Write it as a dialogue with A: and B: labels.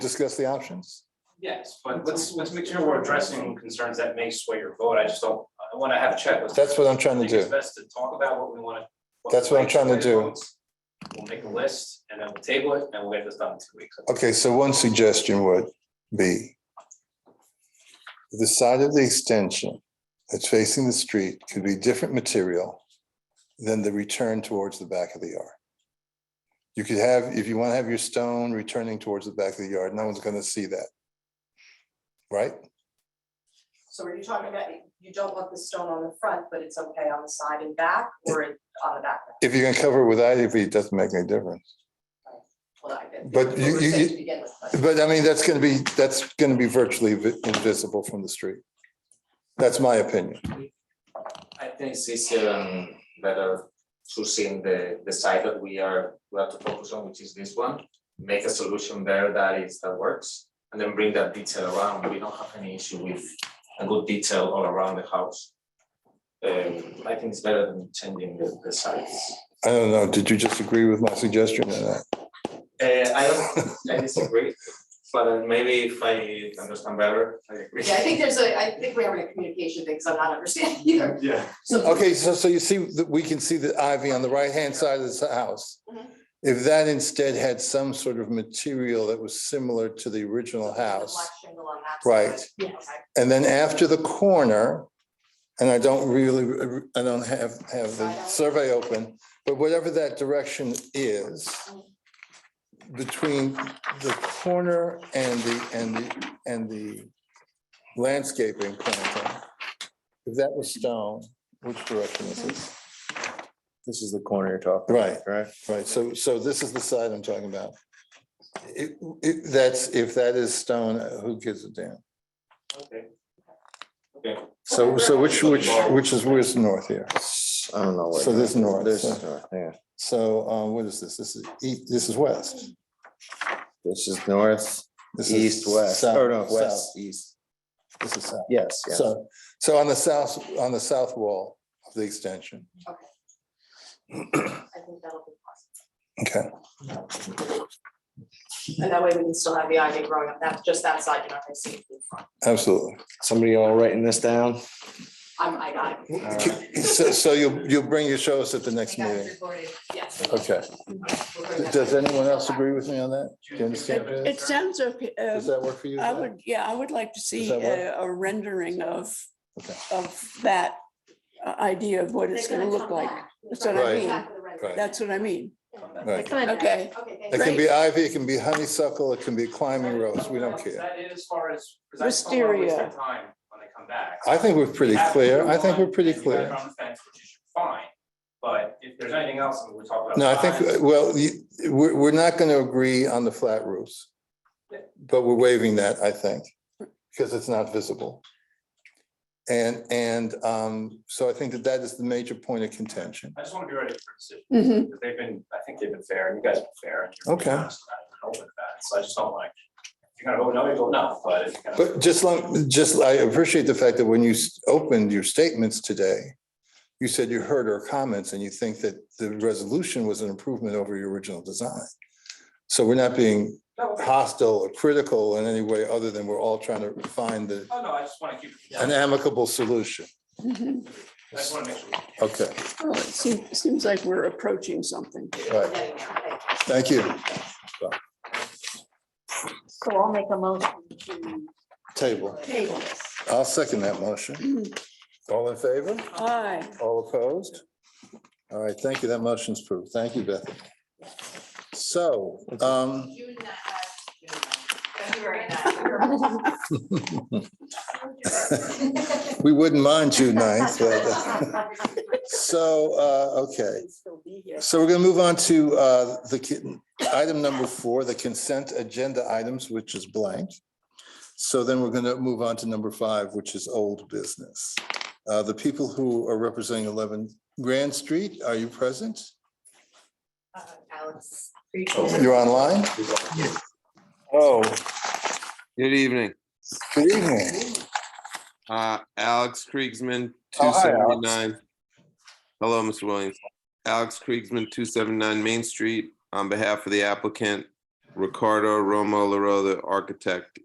A: discuss the options?
B: Yes, but let's, let's make sure we're addressing concerns that may sway your vote. I just don't, I want to have a check with.
A: That's what I'm trying to
B: I think it's
A: do.
B: best to talk about what we want to.
A: That's what I'm trying to do.
B: We'll make a list and then we'll table it and we'll get this done in two weeks.
A: Okay, so one suggestion would be the side of the extension that's facing the street could be different material than the return towards the back of the yard. You could have, if you want to have your stone returning towards the back of the yard, no one's going to see that. Right?
C: So are you talking about, you don't want the stone on the front, but it's okay on the side and back, or it- on the back?
A: If you can cover it with ivy, it doesn't make any difference.
C: Well, I did.
A: But you- you- you-
C: To begin with, but-
A: But I mean, that's going to be, that's going to be virtually vi- invisible from the street. That's my opinion.
D: I think it's um better choosing the the side that we are we have to focus on, which is this one. Make a solution there that is that works and then bring that detail around. We don't have any issue with a good detail all around the house. Um I think it's better than changing the the sides.
A: I don't know, did you just agree with my suggestion or not?
D: Uh I don't, I disagree, but uh, maybe if I understand better, I agree.
C: Yeah, I think there's a, I think we're having a communication thing, because I'm not understanding either.
D: Yeah.
C: So,
A: Okay, so, so you see, that we can see the ivy on the right-hand side of this house.
C: Mhm.
A: If that instead had some sort of material that was similar to the original
C: Black
A: house,
C: shingle on that
A: Right.
C: side. Okay.
A: and then after the corner, and I don't really, I don't have, have the survey open, but whatever that direction is, between the corner and the, and the, and the landscaping planting, if that was stone, which direction is this?
E: This is the corner you're talking
A: Right,
E: Right.
A: right. So, so this is the side I'm talking about. It, it, that's, if that is stone, who gives a damn?
D: Okay.
A: So, so which, which, which is, where's north here?
E: I don't know what.
A: So this north,
E: This
A: so-
E: is north, yeah.
A: So, uh, what is this? This is, east. this is west.
E: This is north,
A: This is
E: east, west,
A: south-
E: or no,
A: south.
E: west, east.
A: This is south.
E: Yes, yes.
A: So, so on the south, on the south wall of the extension.
C: I think that'll be possible.
A: Okay,
C: And that way we can still have the ivy growing up, that's just that side, you're not gonna see it from the front.
A: absolutely.
E: Somebody all writing this down?
C: I'm, I got it.
A: So, so you'll, you'll bring your show us at the next
C: I got it
A: meeting.
C: recorded. Yes.
A: Okay.
C: We'll bring that
A: Does
C: back.
A: anyone else agree with me on that? Do you understand?
B: It-
A: Does
F: It sounds okay. uh,
A: that work for you?
F: I would, yeah, I would like to see
A: that work?
F: a a rendering of,
A: Okay.
F: of that uh, idea of what it's
C: They're
F: gonna look
C: come
F: like.
C: back.
F: That's what I
A: Right.
F: mean.
C: Back with the red.
A: Right.
F: That's what I mean.
A: Right.
F: Okay,
C: Okay, thank
A: It
C: you.
A: can be ivy, it can be honeysuckle, it can be climbing rose, we don't
B: Is
A: care.
B: that it as far as, because I just don't want to waste their time when they come back.
A: I think we're pretty
B: We have to
A: clear,
B: move
A: I think
B: on,
A: we're pretty
B: and you guys
A: clear.
B: are on the fence, which is Fine, but if there's anything else, we talk about.
A: No, I
B: signs.
A: think, uh, well, you- we're, we're not going to agree on the flat roofs. But we're waiving that, I think, because it's not visible. And, and um, so I think that that is the major point of contention.
B: I just want to be ready for a decision.
F: Mhm.
B: Because they've been, I think they've been fair, and you guys have been fair. and you're being
A: Okay.
B: honest about it and open about it. So I just don't like, if you're gonna vote no, you vote no, but if you're gonna.
A: But just like, just, I appreciate the fact that when you s- opened your statements today, you said you heard our comments and you think that the resolution was an improvement over your original design. So we're not being
B: No, okay.
A: hostile or critical in any way other than we're all trying to find the,
B: Oh, no, I just want to keep it,
A: an
B: I
A: amicable solution.
F: mhm.
B: just want to make sure.
A: Okay,
F: Well, it seems, seems like we're approaching something.
A: all right,
C: Getting there, thank you.
A: thank you.
G: So I'll make a motion to
A: Table.
G: table this.
A: I'll second that motion. All in favor?
F: Aye.
A: All opposed? All right, thank you. That motion's approved. Thank you, Beth. So, um,
C: June that has June. February that.
A: we wouldn't mind June ninth, but, uh, so, uh, okay.
G: Still be here.
A: So we're gonna move on to uh, the con- item number four, the consent agenda items, which is blank. So then we're gonna move on to number five, which is old business. Uh, The people who are representing eleven Grand Street, are you present?
C: Alex.
A: You're online?
H: Oh, good evening.
A: Good evening.
H: Uh, Alex Kriegsman,
A: Oh,
H: two
A: hi, Alex.
H: seventy-nine. Hello, Mr. Williams. Alex Kriegsman, two seventy-nine Main Street, on behalf of the applicant. Ricardo Romo Laro, the architect,